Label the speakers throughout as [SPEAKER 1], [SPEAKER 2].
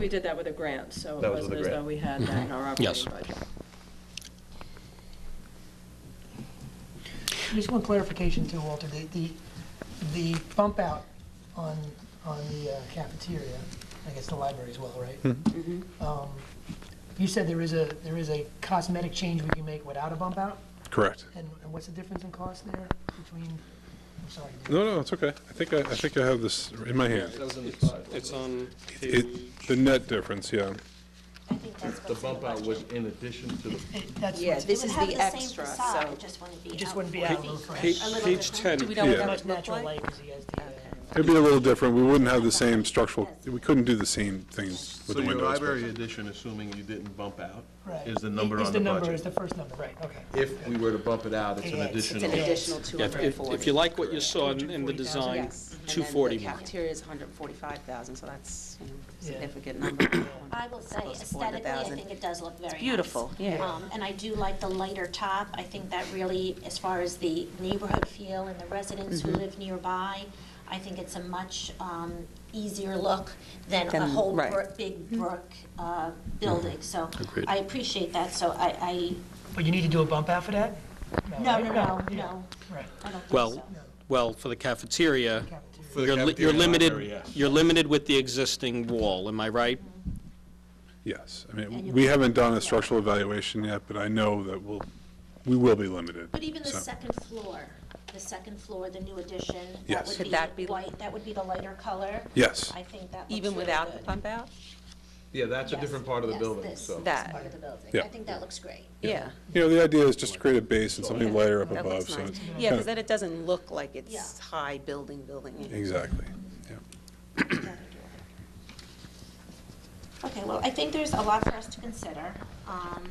[SPEAKER 1] We did that with a grant, so it
[SPEAKER 2] That was
[SPEAKER 1] wasn't
[SPEAKER 2] with a
[SPEAKER 1] as though
[SPEAKER 2] grant.
[SPEAKER 1] we had that in our
[SPEAKER 3] Yes.
[SPEAKER 1] operating budget.
[SPEAKER 4] Just one clarification too, Walter, the, the, the bump out on, on the uh, cafeteria, I guess the library as well, right? Um, You said there is a, there is a cosmetic change we can make without a bump out,
[SPEAKER 5] Correct.
[SPEAKER 4] and, and what's the difference in cost there between, I'm sorry.
[SPEAKER 5] No, no, it's okay. I think I, I think I have this in my hand.
[SPEAKER 6] It's on page,
[SPEAKER 5] It, the net difference, yeah.
[SPEAKER 7] I think that's
[SPEAKER 2] The
[SPEAKER 7] what's in the
[SPEAKER 2] bump out was
[SPEAKER 7] budget.
[SPEAKER 2] in addition to the,
[SPEAKER 4] It- That's,
[SPEAKER 1] Yeah,
[SPEAKER 4] what's-
[SPEAKER 1] this
[SPEAKER 7] It
[SPEAKER 1] is
[SPEAKER 7] would have
[SPEAKER 1] the
[SPEAKER 7] same
[SPEAKER 1] extra,
[SPEAKER 7] facade,
[SPEAKER 1] so.
[SPEAKER 7] it just wouldn't be
[SPEAKER 4] it just
[SPEAKER 7] out.
[SPEAKER 4] wouldn't be out a little
[SPEAKER 6] page
[SPEAKER 4] fresh.
[SPEAKER 6] page
[SPEAKER 1] we
[SPEAKER 6] 10,
[SPEAKER 1] know what
[SPEAKER 5] Yeah.
[SPEAKER 1] that
[SPEAKER 4] Much
[SPEAKER 1] would look
[SPEAKER 4] natural
[SPEAKER 1] like?
[SPEAKER 4] light as he has the, uh,
[SPEAKER 5] It'd be a little different. We wouldn't have the same structural, we couldn't do the same things with
[SPEAKER 2] so
[SPEAKER 5] the
[SPEAKER 2] your
[SPEAKER 5] windows. but-
[SPEAKER 2] library addition, assuming you didn't bump out,
[SPEAKER 4] right.
[SPEAKER 2] is the number
[SPEAKER 4] Is
[SPEAKER 2] on the
[SPEAKER 4] number, is
[SPEAKER 2] budget.
[SPEAKER 4] the first number, right, okay.
[SPEAKER 2] If we were to bump it out, it's an
[SPEAKER 4] Yeah, it's-
[SPEAKER 2] additional.
[SPEAKER 4] Yeah.
[SPEAKER 8] additional
[SPEAKER 6] Yeah, if- if you
[SPEAKER 8] 240.
[SPEAKER 6] like what you saw in in the
[SPEAKER 4] 240,000.
[SPEAKER 6] design,
[SPEAKER 8] Yes. And then the
[SPEAKER 6] 240 more.
[SPEAKER 8] cafeteria is 145,000, so that's, you know, a
[SPEAKER 4] Yeah.
[SPEAKER 8] significant number.
[SPEAKER 7] I will say
[SPEAKER 8] Close to
[SPEAKER 7] aesthetically, I
[SPEAKER 8] 400,000.
[SPEAKER 7] think it does look very nice.
[SPEAKER 8] beautiful, yeah.
[SPEAKER 7] Um, And I do like the lighter top. I think that really, as far as the neighborhood feel and the residents who live nearby, I think it's a much um, easier look than a
[SPEAKER 8] Than-
[SPEAKER 7] whole
[SPEAKER 8] right.
[SPEAKER 7] brick- big
[SPEAKER 4] Mm-hmm.
[SPEAKER 7] brick uh, building. So
[SPEAKER 3] Agreed.
[SPEAKER 7] I appreciate that, so I,
[SPEAKER 4] But you need to do a bump out for that?
[SPEAKER 7] I, no,
[SPEAKER 4] right?
[SPEAKER 7] no, no, no,
[SPEAKER 4] Right.
[SPEAKER 7] I don't think
[SPEAKER 6] Well,
[SPEAKER 7] so.
[SPEAKER 6] well, for the cafeteria,
[SPEAKER 4] Cafeteria.
[SPEAKER 2] For the
[SPEAKER 6] you're li-
[SPEAKER 2] cafeteria
[SPEAKER 6] you're
[SPEAKER 2] and library,
[SPEAKER 6] limited,
[SPEAKER 2] yes.
[SPEAKER 6] you're limited with the existing wall, am I right?
[SPEAKER 5] Yes. I mean, we haven't done a structural evaluation yet, but I know that we'll, we will be limited.
[SPEAKER 7] But even the
[SPEAKER 5] so.
[SPEAKER 7] second floor, the second floor, the new addition, that
[SPEAKER 5] Yes.
[SPEAKER 7] would
[SPEAKER 8] Could that
[SPEAKER 7] be
[SPEAKER 8] be-
[SPEAKER 7] white, that would be the lighter color.
[SPEAKER 5] Yes.
[SPEAKER 7] I think that looks
[SPEAKER 8] Even
[SPEAKER 7] really
[SPEAKER 8] without the
[SPEAKER 7] good.
[SPEAKER 8] bump out?
[SPEAKER 2] Yeah, that's a
[SPEAKER 7] Yes,
[SPEAKER 2] different part of the
[SPEAKER 7] yes,
[SPEAKER 2] building,
[SPEAKER 7] this-
[SPEAKER 2] so.
[SPEAKER 8] That-
[SPEAKER 7] this part of the building.
[SPEAKER 5] Yeah.
[SPEAKER 7] I think that looks great.
[SPEAKER 8] Yeah.
[SPEAKER 5] You know, the idea is just to create a base and something lighter up
[SPEAKER 8] That
[SPEAKER 5] above,
[SPEAKER 8] looks
[SPEAKER 5] so.
[SPEAKER 8] nice.
[SPEAKER 5] it's
[SPEAKER 8] Yeah,
[SPEAKER 5] kinda-
[SPEAKER 8] because then it doesn't look like it's
[SPEAKER 7] Yeah.
[SPEAKER 8] high building, building.
[SPEAKER 5] Exactly, yeah.
[SPEAKER 7] Okay, well, I think there's a lot for us to consider. um,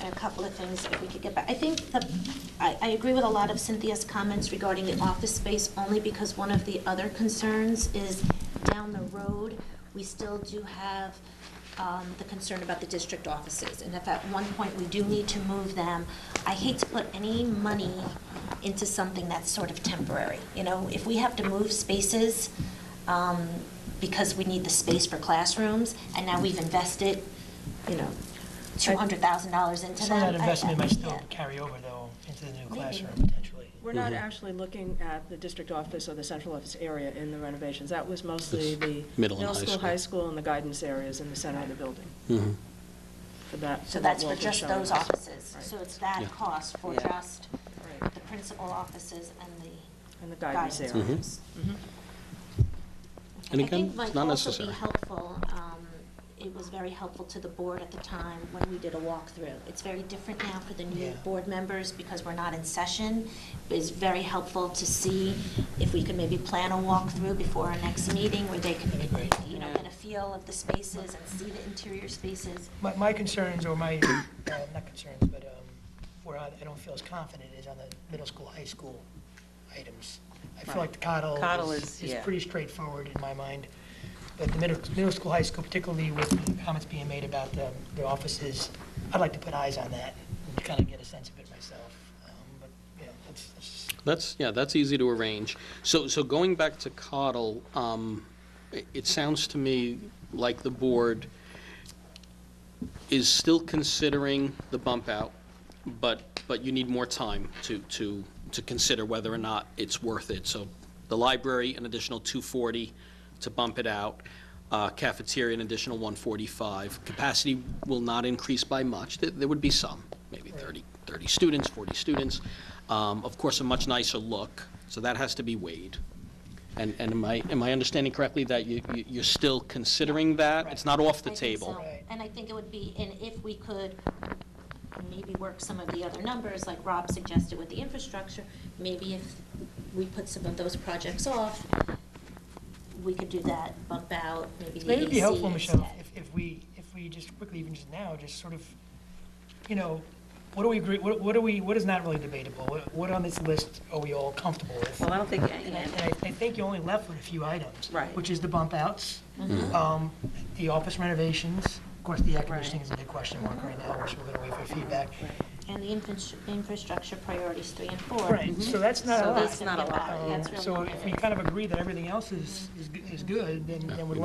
[SPEAKER 7] And a couple of things if we could get back. I think the, I, I agree with a lot of Cynthia's comments regarding the office space only because one of the other concerns is down the road, we still do have um, the concern about the district offices. And if at one point we do need to move them, I hate to put any money into something that's sort of temporary. You know, if we have to move spaces, um, because we need the space for classrooms, and now we've invested, you know, $200,000 into
[SPEAKER 4] Some of
[SPEAKER 7] that.
[SPEAKER 4] that investment might still
[SPEAKER 7] Yeah.
[SPEAKER 4] carry over though into the new
[SPEAKER 7] Maybe.
[SPEAKER 4] classroom potentially.
[SPEAKER 1] We're not actually looking at the district office or the central office area in the renovations. That was mostly the
[SPEAKER 3] middle and
[SPEAKER 1] middle
[SPEAKER 3] high
[SPEAKER 1] school,
[SPEAKER 3] school.
[SPEAKER 1] high school, and the guidance areas in the center of the building. For that.
[SPEAKER 7] So
[SPEAKER 1] what
[SPEAKER 7] that's for
[SPEAKER 1] Walter's
[SPEAKER 7] just
[SPEAKER 1] showing
[SPEAKER 7] those
[SPEAKER 1] us.
[SPEAKER 7] offices.
[SPEAKER 1] Right.
[SPEAKER 7] So it's that
[SPEAKER 3] Yeah.
[SPEAKER 7] cost for
[SPEAKER 8] Yeah.
[SPEAKER 7] just
[SPEAKER 1] Right.
[SPEAKER 7] the principal offices and the
[SPEAKER 1] And the
[SPEAKER 7] guidance
[SPEAKER 1] guidance area.
[SPEAKER 7] rooms.
[SPEAKER 1] Mm-hmm.
[SPEAKER 3] And again, it's not
[SPEAKER 7] I
[SPEAKER 3] necessary.
[SPEAKER 7] think might also be helpful, um, it was very helpful to the board at the time when we did a walkthrough. It's very different now for the new
[SPEAKER 4] Yeah.
[SPEAKER 7] board members because we're not in session. It's very helpful to see if we could maybe plan a walkthrough before our next meeting where they could, you know, get a feel of the spaces and see the interior spaces.
[SPEAKER 4] My, my concerns or my, uh, not concerns, but um, where I I don't feel as confident is on the middle school, high school items. I feel like the
[SPEAKER 8] Coddle
[SPEAKER 4] coddle
[SPEAKER 8] is-
[SPEAKER 4] is, is
[SPEAKER 8] yeah.
[SPEAKER 4] pretty straightforward in my mind. But the middle, middle school, high school, particularly with the comments being made about the, the offices, I'd like to put eyes on that and kind of get a sense of it myself. Um, But, you know, that's, that's
[SPEAKER 3] That's, yeah, that's easy to arrange. So, so going back to Cottle, um, i- it sounds to me like the board is still considering the bump out, but, but you need more time to, to, to consider whether or not it's worth it. So the library, an additional 240 to bump it out, uh, cafeteria, an additional 145. Capacity will not increase by much. There- There would be some, maybe 30, 30 students, 40 students. Um, Of course, a much nicer look, so that has to be weighed. And, and am I, am I understanding correctly that you, you- you're still considering that? It's not off the
[SPEAKER 7] I think so.
[SPEAKER 3] table?
[SPEAKER 7] And I think it would be, and if we could maybe work some of the other numbers, like Rob suggested with the infrastructure, maybe if we put some of those projects off, we could do that, bump out, maybe the
[SPEAKER 4] Maybe it'd be
[SPEAKER 7] AC
[SPEAKER 4] helpful, Michelle,
[SPEAKER 7] instead.
[SPEAKER 4] if, if we, if we just quickly, even just now, just sort of, you know, what do we agree, what, what do we, what is not really debatable? What, what on this list are we all comfortable with?
[SPEAKER 7] Oh.
[SPEAKER 8] Well, I
[SPEAKER 4] And
[SPEAKER 8] don't think,
[SPEAKER 4] I, and I I think you only left with a few items.
[SPEAKER 8] Right.
[SPEAKER 4] Which is the bump outs,
[SPEAKER 7] Mm-hmm.
[SPEAKER 4] um, the office renovations, of course, the air conditioning is a big question mark right now, which we're gonna wait for feedback.
[SPEAKER 7] And the infra- infrastructure priorities three and four.
[SPEAKER 4] Right, so that's not a
[SPEAKER 7] Mm-hmm. So
[SPEAKER 4] lot.
[SPEAKER 7] that's not a lot,
[SPEAKER 4] Um,
[SPEAKER 7] that's really.
[SPEAKER 4] So if we kind of agree that everything else is, is, g- is good, then, then we're